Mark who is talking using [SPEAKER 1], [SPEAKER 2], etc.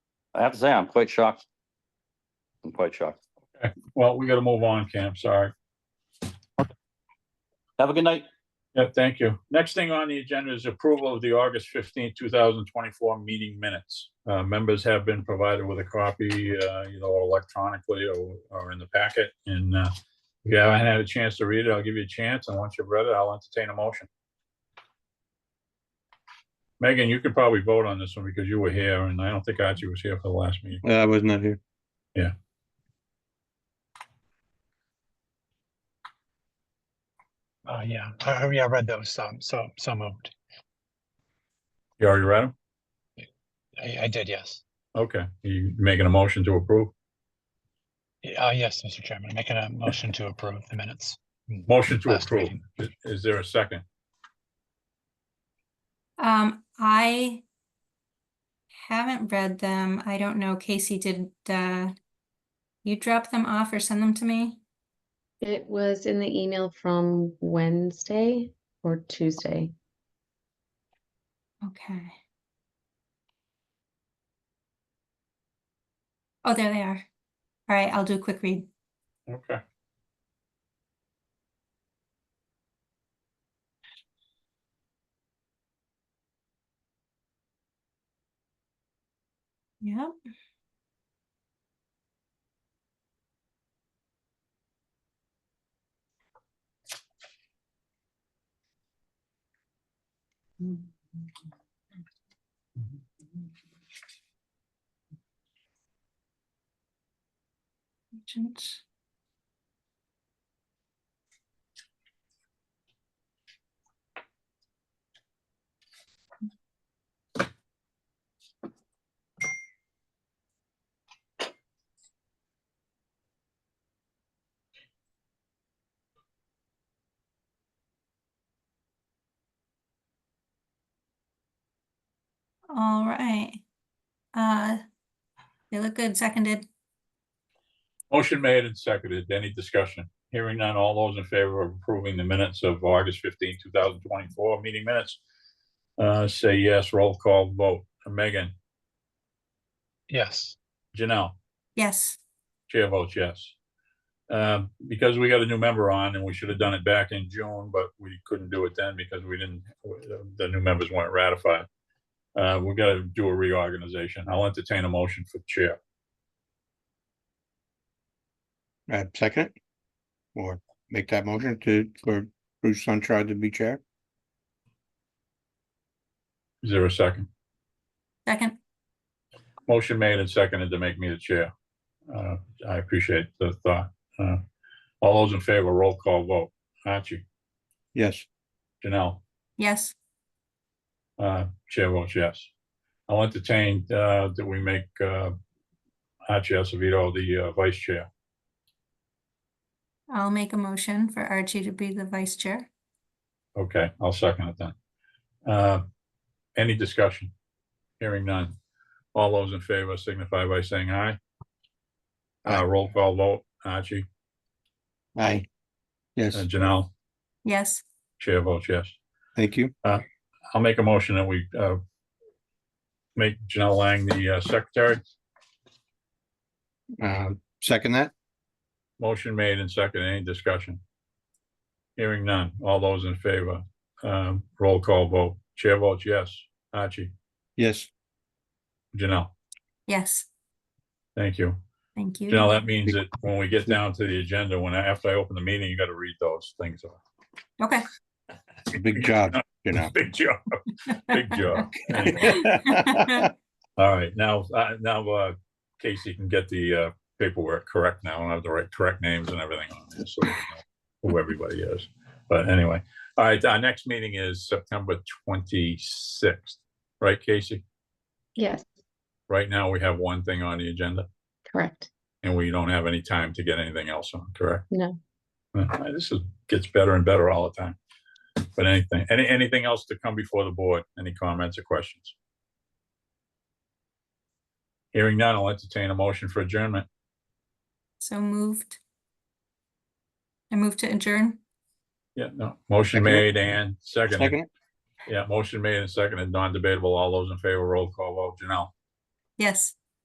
[SPEAKER 1] I have to say, I'm quite shocked. I'm quite shocked.
[SPEAKER 2] Well, we gotta move on, Cam, sorry.
[SPEAKER 1] Have a good night.
[SPEAKER 2] Yeah, thank you. Next thing on the agenda is approval of the August fifteenth, two thousand twenty-four meeting minutes. Uh, members have been provided with a copy, uh, you know, electronically or, or in the packet. And, uh, if you haven't had a chance to read it, I'll give you a chance. And once you've read it, I'll entertain a motion. Megan, you could probably vote on this one because you were here and I don't think Archie was here for the last meeting.
[SPEAKER 3] Uh, I was not here.
[SPEAKER 4] Uh, yeah, I, I- yeah, I read those, um, so, so moved.
[SPEAKER 2] You already read them?
[SPEAKER 4] I, I did, yes.
[SPEAKER 2] Okay, you making a motion to approve?
[SPEAKER 4] Uh, yes, Mr. Chairman, making a motion to approve the minutes.
[SPEAKER 2] Motion to
[SPEAKER 4] Last
[SPEAKER 2] approve.
[SPEAKER 4] meeting.
[SPEAKER 2] Is there a second?
[SPEAKER 5] Um, I haven't read them. I don't know. Casey, did, uh, you drop them off or send them to me?
[SPEAKER 6] It was in the email from Wednesday or Tuesday.
[SPEAKER 5] Okay. Oh, there they are. All right, I'll do a quick read.
[SPEAKER 2] Okay.
[SPEAKER 5] Yep. Agent. All right. Uh, they look good, seconded.
[SPEAKER 2] Motion made and seconded. Any discussion? Hearing none, all those in favor of approving the minutes of August 15, thousand twenty-four, meeting minutes? Uh, say yes, roll call vote. Megan,
[SPEAKER 4] Yes,
[SPEAKER 2] Janelle,
[SPEAKER 5] Yes.
[SPEAKER 2] chair votes yes. Uh, because we got a new member on and we should have done it back in June, but we couldn't do it then because we didn't, the new members weren't ratified. Uh, we gotta do a reorganization. I'll entertain a motion for chair.
[SPEAKER 3] I second it. Or make that motion to, for Bruce Sunshine to be chair.
[SPEAKER 2] Is there a second?
[SPEAKER 5] Second,
[SPEAKER 2] Motion made and seconded to make me the chair. Uh, I appreciate the thought. Uh, All those in favor, roll call vote. Archie,
[SPEAKER 3] Yes,
[SPEAKER 2] Janelle,
[SPEAKER 5] yes,
[SPEAKER 2] uh, chair votes yes. I'll entertain uh, that we make uh, Archie Acevedo the uh, vice chair.
[SPEAKER 5] I'll make a motion for Archie to be the vice chair.
[SPEAKER 2] Okay, I'll second it then. Uh, Any discussion? Hearing none. All those in favor signify by saying aye. Uh,
[SPEAKER 3] Aye.
[SPEAKER 2] Roll call vote. Archie,
[SPEAKER 3] aye.
[SPEAKER 2] uh,
[SPEAKER 3] Yes,
[SPEAKER 2] Janelle,
[SPEAKER 5] Yes,
[SPEAKER 2] chair votes yes.
[SPEAKER 3] thank you.
[SPEAKER 2] I'll make a motion that we uh, make Janelle Lang the uh, secretary.
[SPEAKER 3] Um, second that.
[SPEAKER 2] Motion made and second. Any discussion? Hearing none. All those in favor, um, roll call vote. Chair votes yes. Archie,
[SPEAKER 3] Yes,
[SPEAKER 2] Janelle,
[SPEAKER 5] yes,
[SPEAKER 2] thank you.
[SPEAKER 5] thank you.
[SPEAKER 2] Janelle, that means that when we get down to the agenda, when, I- after I open the meeting, you got to read those things. off.
[SPEAKER 5] Okay.
[SPEAKER 3] big job, you know.
[SPEAKER 2] Big job, big job. Anyway. All right, now, uh, now uh, Casey can get the uh, paperwork correct now, and have the right, correct names and everything on there, so we know who everybody is. But anyway, all right, our next meeting is September twenty-sixth, right, Casey?
[SPEAKER 6] Yes,
[SPEAKER 2] Right now, we have one thing on the agenda,
[SPEAKER 6] correct.
[SPEAKER 2] and we don't have any time to get anything else on, correct?
[SPEAKER 6] No.
[SPEAKER 2] Uh, This is, gets better and better all the time. But anything, any, anything else to come before the board? Any comments or questions? Hearing none, I'll entertain a motion for adjournment.
[SPEAKER 5] So moved. I moved to adjourn.
[SPEAKER 2] Yeah, no, motion
[SPEAKER 3] Second.
[SPEAKER 2] made and
[SPEAKER 3] Second
[SPEAKER 2] seconded.
[SPEAKER 3] it.
[SPEAKER 2] Yeah, motion made and seconded, non-debatable. All those in favor, roll call vote. Janelle,
[SPEAKER 5] Yes,